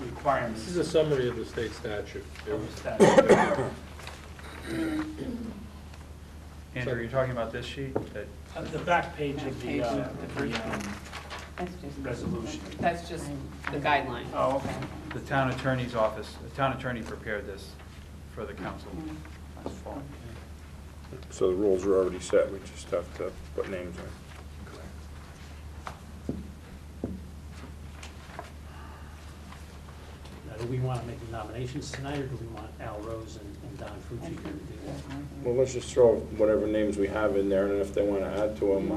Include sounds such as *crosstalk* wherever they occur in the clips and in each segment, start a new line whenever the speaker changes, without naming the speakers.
requirements
This is a summary of the state statute.
of the statute.
Andrew, you're talking about this sheet? that-
At the back page of the, uh,
Back page
the, um,
That's just.
resolution.
That's just the guideline.
Oh, okay.
The town attorney's office, the town attorney prepared this for the council last fall.
So the rules are already set, we just have to put names in.
Now, do we want to make the nominations tonight, or do we want Al Rose and and Don Fucci here to do that?
Well, let's just throw whatever names we have in there, and if they want to add to them, uh,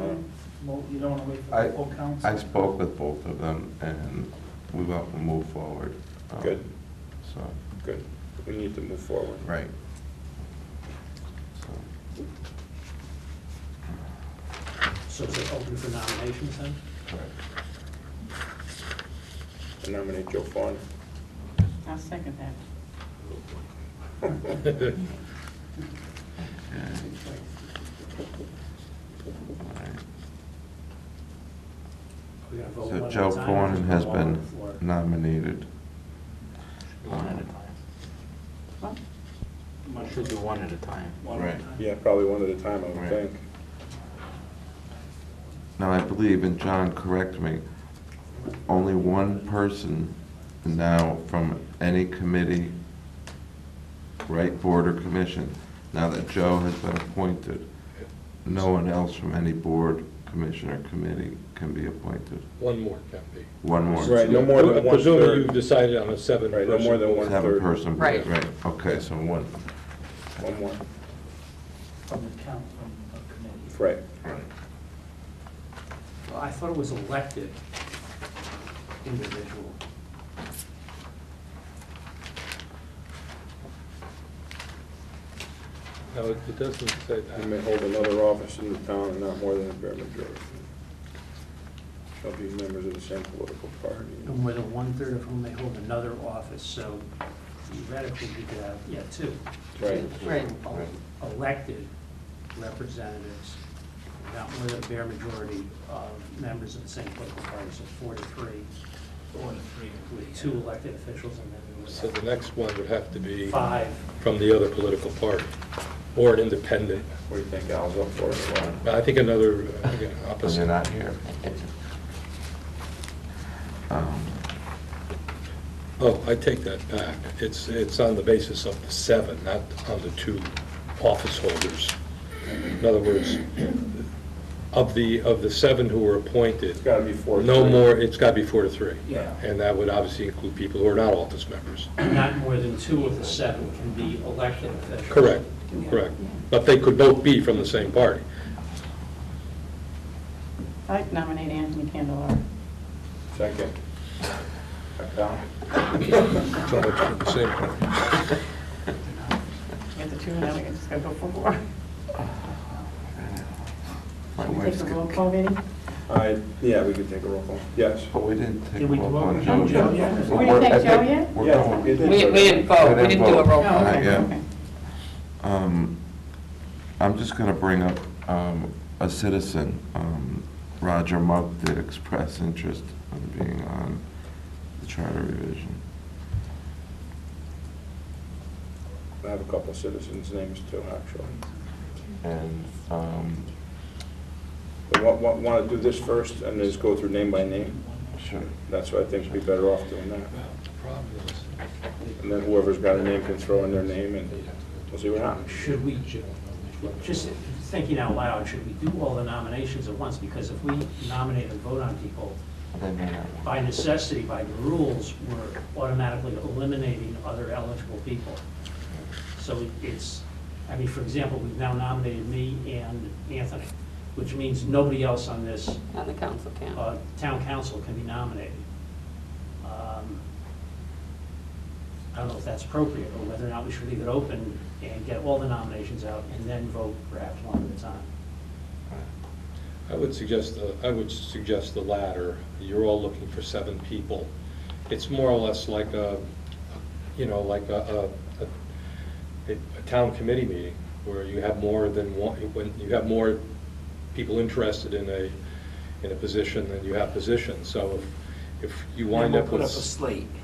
Well, you don't want to wait for
I,
the full council?
I spoke with both of them, and we want to move forward. um,
Good.
So,
good, we need to move forward.
right. So,
So is it open for nominations then?
correct.
I nominate Joe Fawn.
I'll second that.
Okay. All right.
We're gonna vote one
So
at a
Joe
time,
Cornyn
just
has
go all
been
on the floor?
nominated.
Well,
Should do one at a time.
Right.
Yeah, probably one at a time, I would
Right.
think.
Now, I believe, and John, correct me, only one person now from any committee, right, board or commission, now that Joe has been appointed, no one else from any board, commission, or committee can be appointed.
*laughs* One more can be.
One more.
Right, no more than one
Presumably you've
third.
decided on a seven
Right, no more
person.
than one
Seven
third.
person.
Right.
Right, okay, so one.
One more,
From the count, from the committee.
right.
Well, I thought it was elected individual.
No, it it doesn't say
You
that.
may hold another office in the town and not more than a bare majority. Shall be members of the same political party.
No more than one-third of whom may hold another office, so theoretically, we could have, yeah, two.
Right.
Right.
Right.
Elected representatives, not more than a bare majority of members of the same political party, so four to three,
One, three,
with two elected officials, and then we
So
would
the next one would have to
have
be
five.
from the other political party or an independent.
What do you think, Al's up for it? or
But I think another uh, again,
And you're
opposite.
not here. Um,
Oh, I take that back. It's, it's on the basis of the seven, not on the two office holders. In other words, of the, of the seven who were appointed,
It's gotta be four.
no
three.
more, it's got to be four to three.
Yeah.
And that would obviously include people who are not office members.
Not more than two of the seven can be elected officials.
Correct, correct. But they could both be from the same party.
I'd nominate Anthony Candelar.
Second. Back down.
So much *laughs*
*laughs*
for the same party.
Get the two, and then we can just go for four.
My
Can we take
wife's
a
good.
roll call, Vinnie?
I, yeah, we could take a roll call. Yes.
But we didn't take
Did we
a vote
do
on
it?
Joe yet.
Joe, yeah.
We didn't take Joe yet?
We're
Yeah,
going.
we did.
We, we didn't vote, we didn't do a roll call.
Not
Oh, Okay,
yet.
okay.
Um, I'm just going to bring up um, a citizen. Um, Roger Monk did express interest in being on the charter revision.
I have a couple of citizens' names too, actually.
And um,
But what, what, want to do this first and just go through name by name?
sure,
That's what I think would be better off doing that.
Well, the problem is,
And then whoever's got a name can throw in their name and we'll see what happens.
Should we, just thinking out loud, should we do all the nominations at once? Because if we nominate and vote on people,
they may not.
by necessity, by the rules, we're automatically eliminating other eligible people. So it- it's, I mean, for example, we've now nominated me and Anthony, which means nobody else on this
On the council count.
uh, town council can be nominated. Um, I don't know if that's appropriate, or whether or not we should leave it open and get all the nominations out and then vote perhaps one at a time.
I would suggest, the I would suggest the latter. You're all looking for seven people. It's more or less like a, you know, like a, a- a, a town committee meeting where you have more than one, when you have more people interested in a, in a position than you have positions. So if, if you
And
wind
we'll
up with.
put up a slate.